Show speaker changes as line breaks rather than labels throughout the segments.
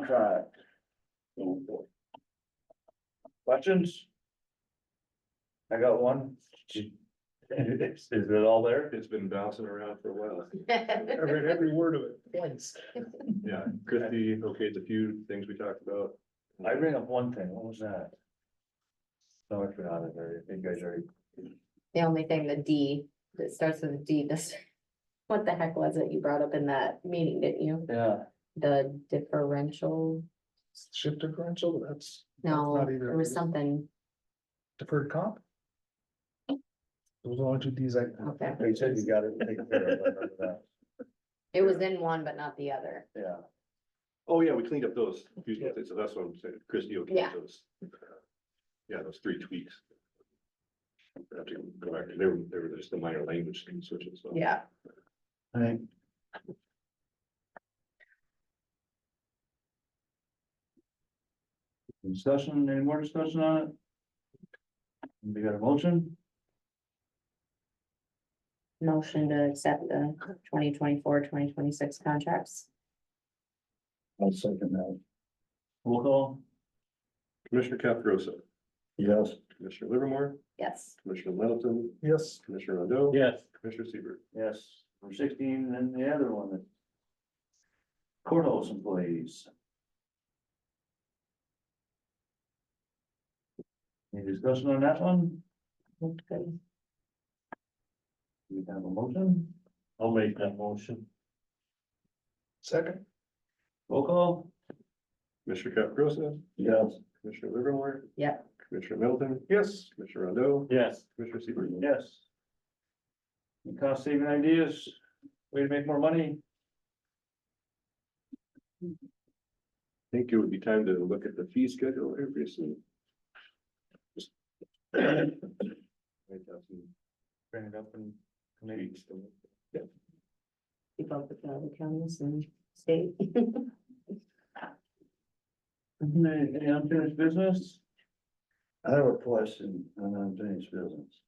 contract. Going forward. Questions? I got one. Is is it all there?
It's been bouncing around for a while.
I read every word of it twice.
Yeah, Christie, okay, it's a few things we talked about.
I bring up one thing, what was that? No, I forgot it, already. I think I already,
The only thing, the D, that starts with a D, this, what the heck was it you brought up in that meeting, didn't you?
yeah,
The differential,
Shift differential, but that's
no,
not either
there
of
was
these.
something,
deferred comp. Those are the only two Ds I.
okay,
you said you got it taken care of, I remember that,
it was in one but not the other.
yeah.
Oh, yeah, we cleaned up those, few things, so that's what I'm saying, Christie, okay,
Yeah.
those. Yeah, those three tweaks. I have to go back, they were, they were just the minor language switches. so.
Yeah.
Right. Discussion, any more discussion on it? We got a motion,
Motion to accept the 2024-2026 contracts.
I'll second that.
roll call,
Commissioner Caprosa,
Yes.
Commissioner Livermore,
Yes,
Commissioner Middleton,
Yes,
Commissioner Rondo.
Yes.
Commissioner Siebert.
yes, number sixteen, and the other one. that- Courthouse employees. Any discussion on that one?
looked good.
We have a motion,
I'll make that motion.
second,
roll call,
Commissioner Caprosa,
Yes.
Commissioner Livermore.
Yeah.
Commissioner Middleton,
yes,
Commissioner Rondo,
Yes.
Commissioner Siebert.
yes. Any Cost saving ideas, way to make more money,
I think it would be time to look at the fee schedule every soon. Just- Write down some
bring it up and committee.
tweaks.
We both with the other counties and state.
Any any unfinished business?
I have a question on unfinished business.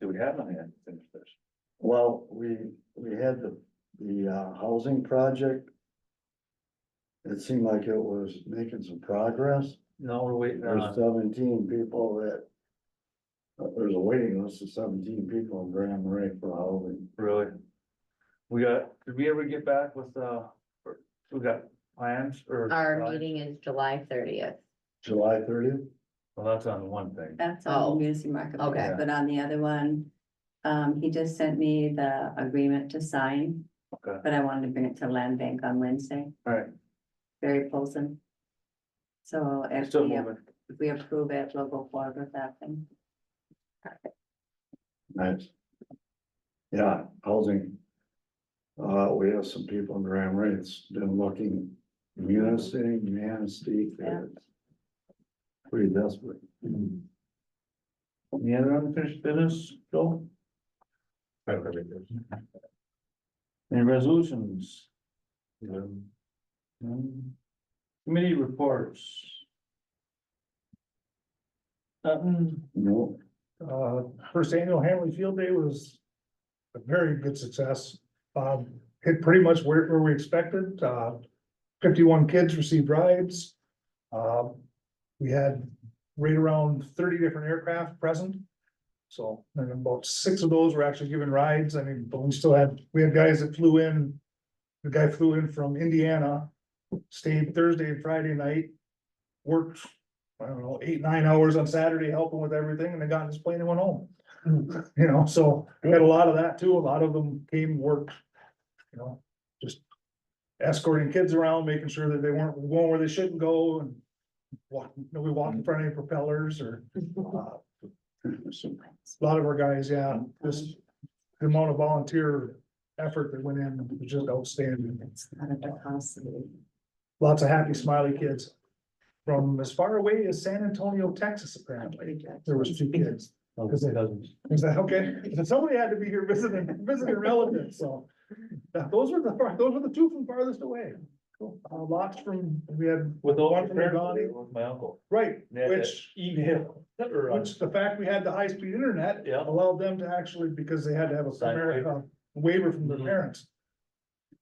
Do we have any unfinished business?
Well, we, we had the, the uh, housing project. It seemed like it was making some progress.
No, we're waiting
There's
on,
seventeen people that. uh, There's a waiting list of seventeen people in Grand Marais for housing.
really. We got, did we ever get back with, uh, or- we got plans or?
Our meeting is July thirtieth.
July thirtieth?
Well, that's on one thing.
That's on
Oh,
the Munising marketplace,
okay.
but on the other one, um, he just sent me the agreement to sign.
Okay.
But I wanted to bring it to land bank on Wednesday,
Alright,
Barry Polson. So if
still
we,
moving.
if we approve it, we'll go forward with that thing.
Nice. Yeah, housing. Uh, we have some people in Grand Marais, that's been looking, municipality, municipality.
Yeah.
Pretty desperate.
Any other unfinished business, Joel?
I don't have anything.
Any resolutions?
No.
Um, Committee reports. Nothing.
No,
uh, first annual Hanley Field Day was. A very good success, um, hit pretty much where, where we expected, uh, fifty-one kids received rides. Um, we had right around thirty different aircraft present. So, and about six of those were actually given rides, I mean, but we still had, we had guys that flew in. The guy flew in from Indiana, stayed Thursday and Friday night, worked I don't know, eight, nine hours on Saturday helping with everything and they got in his plane and went home. You know, so we had a lot of that too. A lot of them came work, you know, just escorting kids around, making sure that they weren't going where they shouldn't go and walking, nobody walked in front of any propellers or uh, a lot of our guys, yeah, just the amount of volunteer effort that went in was just outstanding.
It's not at the house.
Lots of happy smiley kids from as far away as San Antonio, Texas, apparently. There was two kids.
Because it doesn't.
Is that okay? So Somebody had to be here visiting, visiting relatives, so. uh, Those were the, those were the two from farthest away. Uh, lots from, we had,
With all
One
my
from your body.
with my uncle.
right,
They had that
Which-
Email. or, uh,
which the fact we had the high-speed internet
Yeah.
allowed them to actually, because they had to have a
Sign
America waiver from their
Mhm.
parents.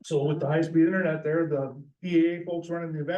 So with the high-speed internet there, the EAA E folks running the event